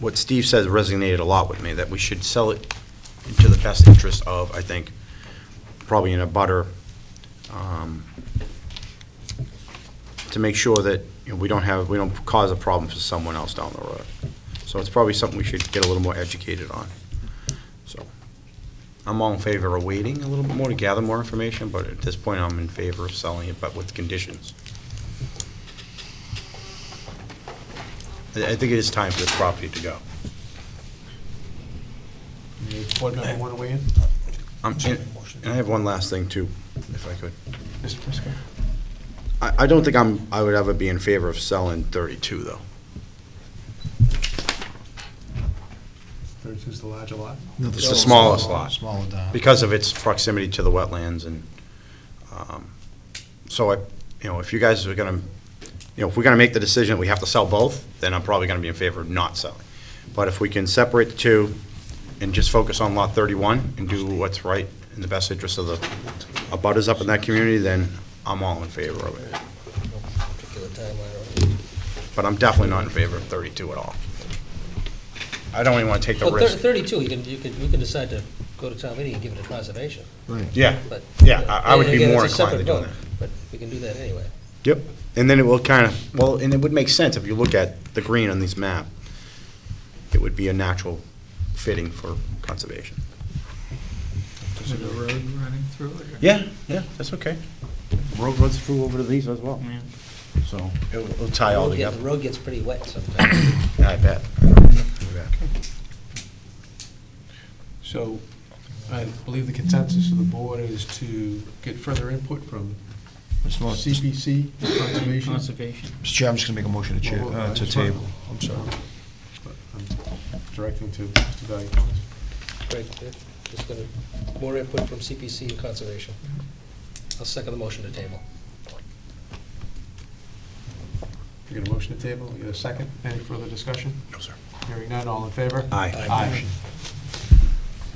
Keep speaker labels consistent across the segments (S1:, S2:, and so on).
S1: what Steve says resonated a lot with me, that we should sell it into the best interest of, I think, probably in a butter, um, to make sure that, you know, we don't have, we don't cause a problem for someone else down the road. So it's probably something we should get a little more educated on. So I'm all in favor of waiting a little bit more to gather more information, but at this point, I'm in favor of selling it, but with conditions. I I think it is time for this property to go.
S2: Board member want to weigh in?
S1: Um, And and I have one last thing, too, if I could.
S2: Mr. Prisco?
S1: I, I don't think I'm, I would ever be in favor of selling 32, though.
S2: 32 is the larger lot?
S1: It's the smallest lot.
S3: Smaller down.
S1: because of its proximity to the wetlands and, um, so I, you know, if you guys are gonna, you know, if we're gonna make the decision that we have to sell both, then I'm probably gonna be in favor of not selling. But if we can separate the two and just focus on lot thirty-one and do what's right in the best interest of the abutters up in that community, then I'm all in favor of it.
S4: particular timeline. or-
S1: But I'm definitely not in favor of thirty-two at all. I don't even wanna take the
S4: Well, thir-
S1: risk.
S4: thirty-two, you can, you can, you can decide to go to town meeting and give it a conservation,
S1: Yeah,
S4: but.
S1: yeah, I, I would be
S4: Again, it's
S1: more
S4: a
S1: inclined to
S4: separate
S1: do
S4: vote,
S1: that.
S4: But we can do that anyway.
S1: Yep, and then it will kind of, well, and it would make sense if you look at the green on this map. It would be a natural fitting for conservation.
S5: Is it a road running through it?
S1: Yeah, yeah, that's okay. Road runs through over to these as well, so it'll it'll tie all
S4: Road get-
S1: together.
S4: The road gets pretty wet sometimes.
S1: I bet.
S2: So I believe the consensus of the board is to get further input from CPC, Conservation.
S5: Conservation.
S3: Mr. Chair, I'm just gonna make a motion to chair,
S2: Well,
S3: uh,
S2: I
S3: to
S2: just wanna-
S3: table.
S2: I'm sorry. But I'm Directing to Mr. Valiakonis.
S4: Great, yeah. just gonna, more input from CPC and conservation. I'll second the motion to table.
S2: You get a motion to table, you get a second, any further discussion?
S1: No, sir.
S2: Hearing none, all in favor?
S1: Aye.
S2: Aye.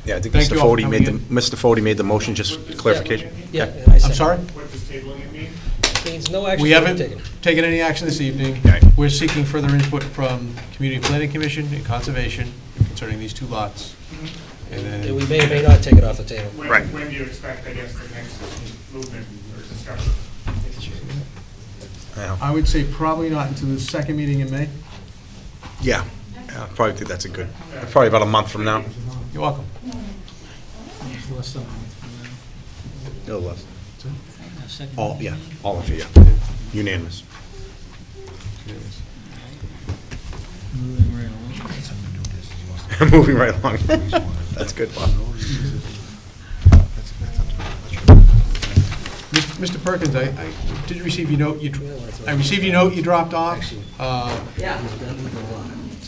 S1: Yeah, I think
S2: Thank
S1: Mr.
S2: you all for
S1: Fode made the,
S2: coming
S1: Mr. Fode made the motion, just clarification.
S4: Yeah,
S1: Okay.
S4: and I
S2: I'm
S4: second.
S2: sorry?
S6: What does tabling it mean?
S4: Means no action
S2: We
S4: to be
S2: haven't
S4: taken.
S2: taken any action this evening.
S1: Right.
S2: We're seeking further input from Community Planning Commission and Conservation concerning these two lots. And
S4: And we
S2: then,
S4: may or may not take it off the table.
S6: When-
S1: Right.
S6: When do you expect, I guess, the next movement or discussion?
S1: Yeah,
S2: I would say probably not until the second meeting in May.
S1: Yeah, I probably think that's a good, probably about a month from now.
S2: You're welcome.
S5: There's less than a month from
S1: A little less.
S5: now. A second
S1: All, yeah,
S5: meeting.
S1: all in favor, unanimous.
S5: Moving right along.
S1: Moving right along. That's good, Bob.
S2: Mr. Perkins, I, I did receive your note, you, I received your note you dropped off. Uh,
S7: Yeah,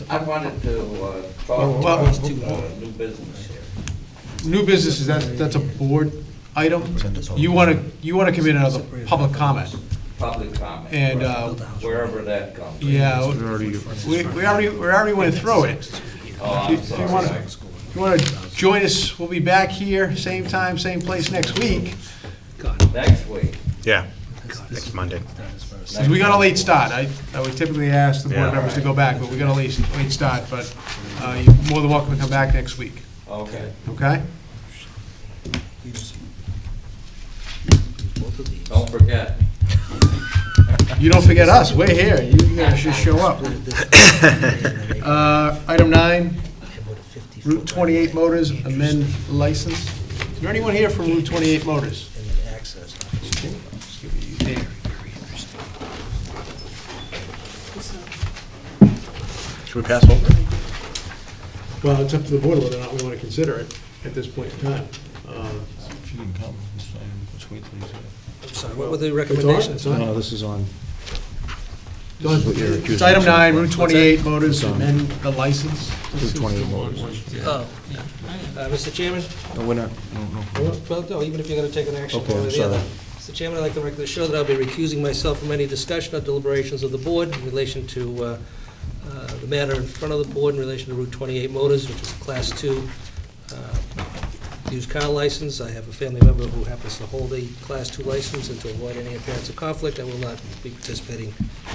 S7: I wanted to uh,
S2: Well,
S7: talk
S2: well-
S7: about uh, new business here.
S2: New businesses, that's, that's a board item. You want to, you want to come in as a public comment,
S7: public comment.
S2: and uh,
S7: Wherever that comes.
S2: Yeah, we, we already, we already went through it.
S7: Oh,
S2: If you-
S7: I'm
S2: if you want
S7: sorry.
S2: to, if you want to join us, we'll be back here, same time, same place next week,
S7: Next week.
S1: Yeah, next Monday.
S2: because we got a late start. I, I would typically ask the board
S1: Yeah.
S2: members to go back, but we got a late, late start, but uh, you're more than welcome to come back next week,
S7: Okay,
S2: okay?
S7: don't forget.
S2: You don't forget us, we're here, you guys just show up. Uh, Item nine, Route 28 Motors amend license. Is there anyone here from Route 28 Motors?
S1: Should we pass over?
S2: Well, it's up to the board whether or not we want to consider it at this point in time. Um,
S3: If you didn't come, it's fine. Let's wait till he's here.
S4: Sorry, what were the
S2: It's on,
S4: recommendations?
S2: it's
S3: No,
S2: on.
S3: no, this is on.
S2: It's on. It's item nine, Route 28 Motors, amend the license.
S3: Route 28 Motors.
S4: Oh, uh, Mr. Chairman?
S3: No, we're not, no, no.
S4: Well, no, even if you're going to take an action
S3: Okay,
S4: one or
S3: I'm
S4: the other.
S3: sorry.
S4: Mr. Chairman, I'd like to record the show that I'll be recusing myself from any discussion or deliberations of the board in relation to uh, uh, the matter in front of the board in relation to Route 28 Motors, which is a Class 2 uh, used car license. I have a family member who happens to hold a Class 2 license, and to avoid any appearance of conflict, I will not be participating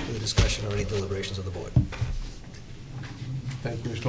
S4: in the discussion or any deliberations of the board.
S2: Thank you, Mr.